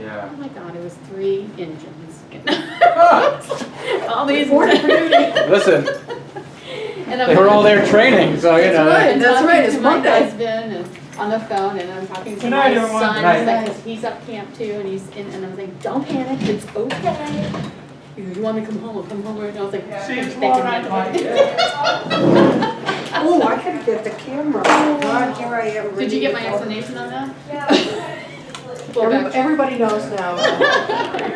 Yeah. oh my god, it was three engines. All these. Reported for duty. Listen, And I'm- they were all there training, so you That's know. right, and That's talking right, it's to my Monday. Husband and on the phone and I'm talking to Good night, my everyone. son, Good he's night. like, 'cause he's up camp too and he's in, and I'm like, don't panic, it's okay. He goes, you want me to come home, I'll come home, and I was like. See you "Thank tomorrow night, Mike. Oh, I couldn't get the camera. Oh, God, here I am. Did you get my reading. explanation on that? Yeah. Pull Every- back. Everybody knows now.